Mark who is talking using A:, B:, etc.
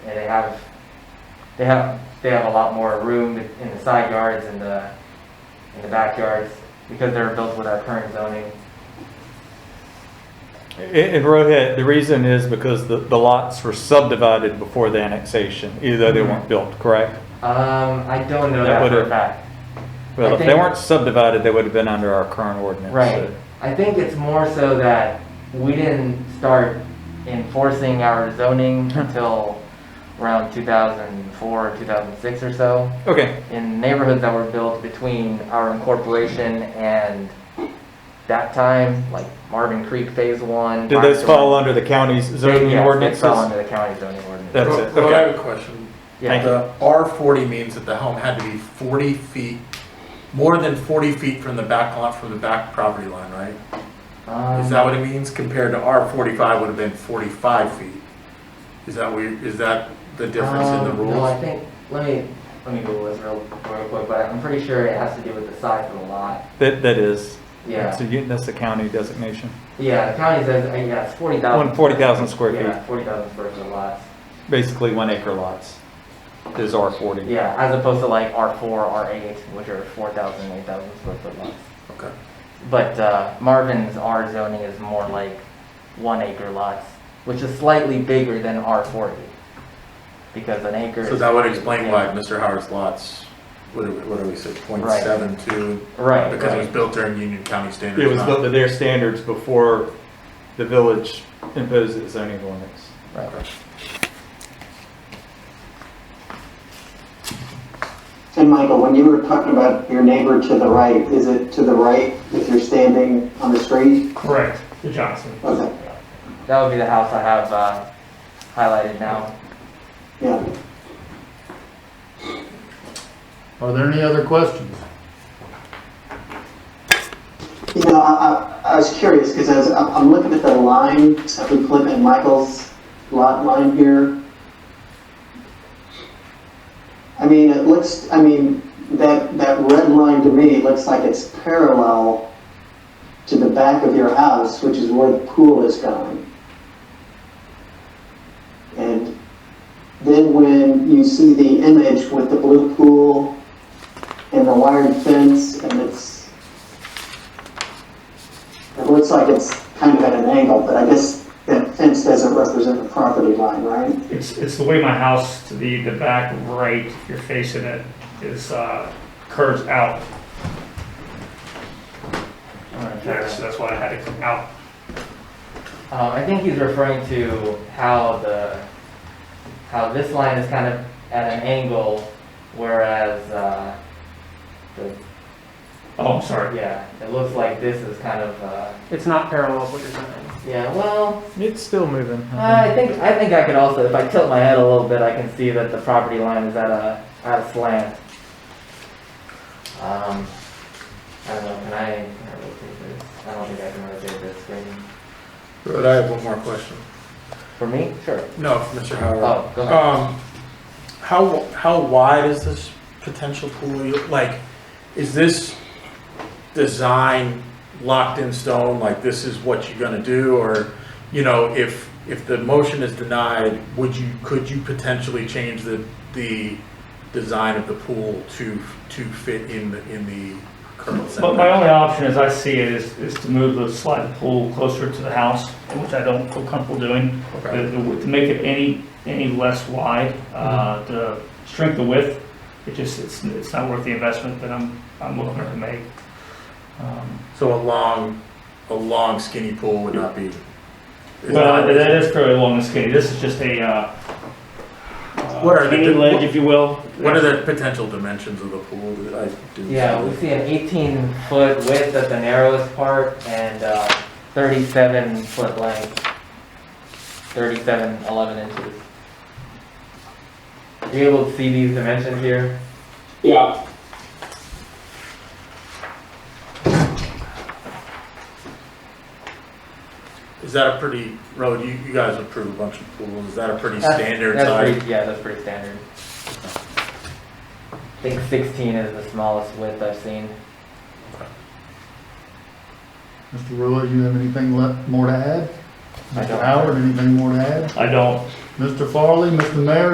A: Yeah, they have, they have, they have a lot more room in the side yards and the, in the backyards because they're built with our current zoning.
B: And, and Rohit, the reason is because the, the lots were subdivided before the annexation, even though
A: Mm-hmm.
B: they weren't built, correct?
A: Um, I don't know
B: That
A: that for a
B: would've-
A: fact.
B: Well, if they
A: think-
B: weren't subdivided, they would have been under our current ordinance.
A: Right. I think it's more so that we didn't start enforcing our zoning until around 2004 or 2006 or so.
B: so- Okay,
A: in neighborhoods that were built between our incorporation and that time, like Marvin Creek Phase One.
B: did those fall under the county's zoning
A: Yes, they
B: ordinances?
A: fell under the county zoning ordinance.
B: That's
C: Well,
B: it,
C: well, I
B: okay.
C: have a question.
A: Yeah,
B: Thank
C: The R forty means that the home had to be forty feet, more than forty feet from the back lot, from the back property line, right? Is
A: um,
C: that what it means compared to R forty-five would have been forty-five feet? Is that we, is that the difference in the
A: um, No, I
C: rules?
A: think, let me, let me Google this real, real quick, but I'm pretty sure it has to do with the size of the lot.
B: That, that is.
A: Yeah,
B: So you, that's the county designation.
A: yeah, the county says, uh, yeah, it's forty thousand.
B: One, 40,000 square feet,
A: Yeah, forty thousand square foot lots.
B: basically one acre lots is R forty.
A: Yeah, as opposed to like R four, R eight, which are four thousand, eight thousand square foot lots.
C: Okay.
A: But uh, Marvin's R zoning is more like one acre lots, which is slightly bigger than R forty. Because an acre
C: So
A: is.
C: that would explain why Mr. Howard's lots, what do we, what do we say, point
A: Right.
C: seven two?
A: Right,
C: Because it was
A: right,
C: built during Union County standards.
B: It was
C: not-
B: built to their standards before the village imposed its zoning ordinance.
A: right.
D: And Michael, when you were talking about your neighbor to the right, is it to the right if you're standing on the street?
E: Correct, the Johnson.
D: Okay,
A: That would be the house I have uh, highlighted now.
D: yeah.
F: Are there any other questions?
D: You know, I, I, I was curious because as I'm, I'm looking at the line between Plymouth and Michael's lot line here. I mean, it looks, I mean, that, that red line to me looks like it's parallel to the back of your house, which is where the pool is going. And then when you see the image with the blue pool and the wired fence and it's it looks like it's kind of at an angle, but I guess that fence doesn't represent the property line, right?
E: It's, it's the way my house to the, the back right, if you're facing it, is, uh, curves out. That's, that's why I had it come out.
A: Um, I think he's referring to how the, how this line is kind of at an angle, whereas uh, the,
E: Oh, I'm sorry.
A: yeah, it looks like this is kind of, uh,
G: It's not parallel with what you're saying.
A: yeah, well,
B: It's still moving.
A: Uh, I think I think I could also, if I tilt my head a little bit, I can see that the property line is at a at a slant. Um, I don't know. Can I, can I rotate this? I don't think I can rotate this screen.
C: But I have one more question.
A: For me, sure.
C: No, Mr. Howard.
A: Oh, go ahead.
C: Um, how, how wide is this potential pool? You- Like, is this design locked in stone, like this is what you're gonna do? Or, you know, if, if the motion is denied, would you, could you potentially change the, the design of the pool to, to fit in the, in the current
E: But my
C: setback?
E: only option, as I see it, is, is to move the slide pool closer to the house, which I don't feel comfortable doing.
C: Okay.
E: To to make it any, any less wide, uh,
G: Mm-hmm.
E: to shrink the width, it just, it's, it's not worth the investment that I'm, I'm looking to make. Um,
C: So a long, a long skinny pool would not be. is
E: Well,
C: not-
E: that that is fairly long and skinny. This is just a, uh,
C: What are
E: uh,
C: the-
E: skinny ledge, if you will.
C: What are the potential dimensions of the pool that I do?
A: Yeah, we see an 18 foot width at the narrowest part and uh, 37 foot length. 37, 11 inches. Are you able to see these dimensions here?
H: Yeah,
C: Is that a pretty, road? you, you guys approve a bunch of pools, is that a pretty
A: That's-
C: standard
A: that's
C: size?
A: pretty- Yeah, that's pretty standard. I think 16 is the smallest width I've seen.
F: Mr. Ruler, you have anything left, more to add?
A: I
F: Mr.
A: don't.
F: Howard, anything more to add?
E: I don't,
F: Mr. Farley, Mr. Mayor,